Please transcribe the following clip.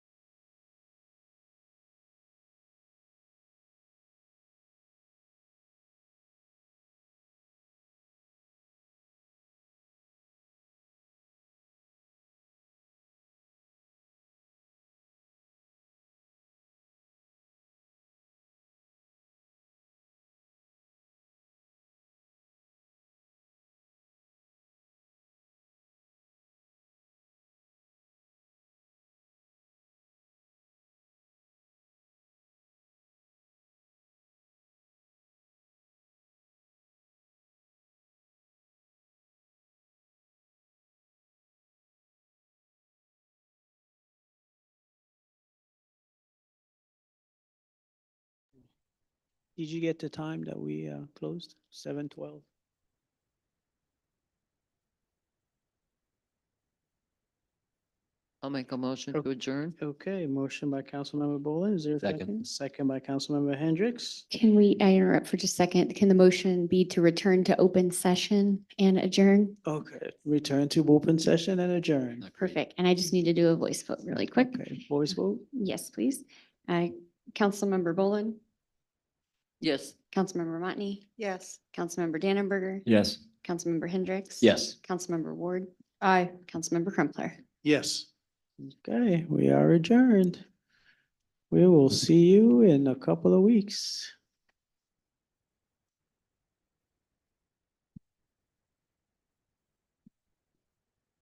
Did you get the time that we uh, closed? Seven twelve? I'll make a motion Oh. to adjourn. Okay, motion by Councilmember Bolin. Is there a Second. second? Second by Councilmember Hendricks. Can we, I interrupt for just a second? Can the motion be to return to open session and adjourn? Okay, return to open session and adjourn. Perfect. And I just need to do a voice vote really quick. Okay, voice vote? Yes, please. Uh, Councilmember Bolin, Yes. Councilmember Motney, Yes. Councilmember Dannenberger, Yes. Councilmember Hendricks. Yes. Councilmember Ward. Aye. Councilmember Crumpler. Yes. Okay, we are adjourned. We will see you in a couple of weeks.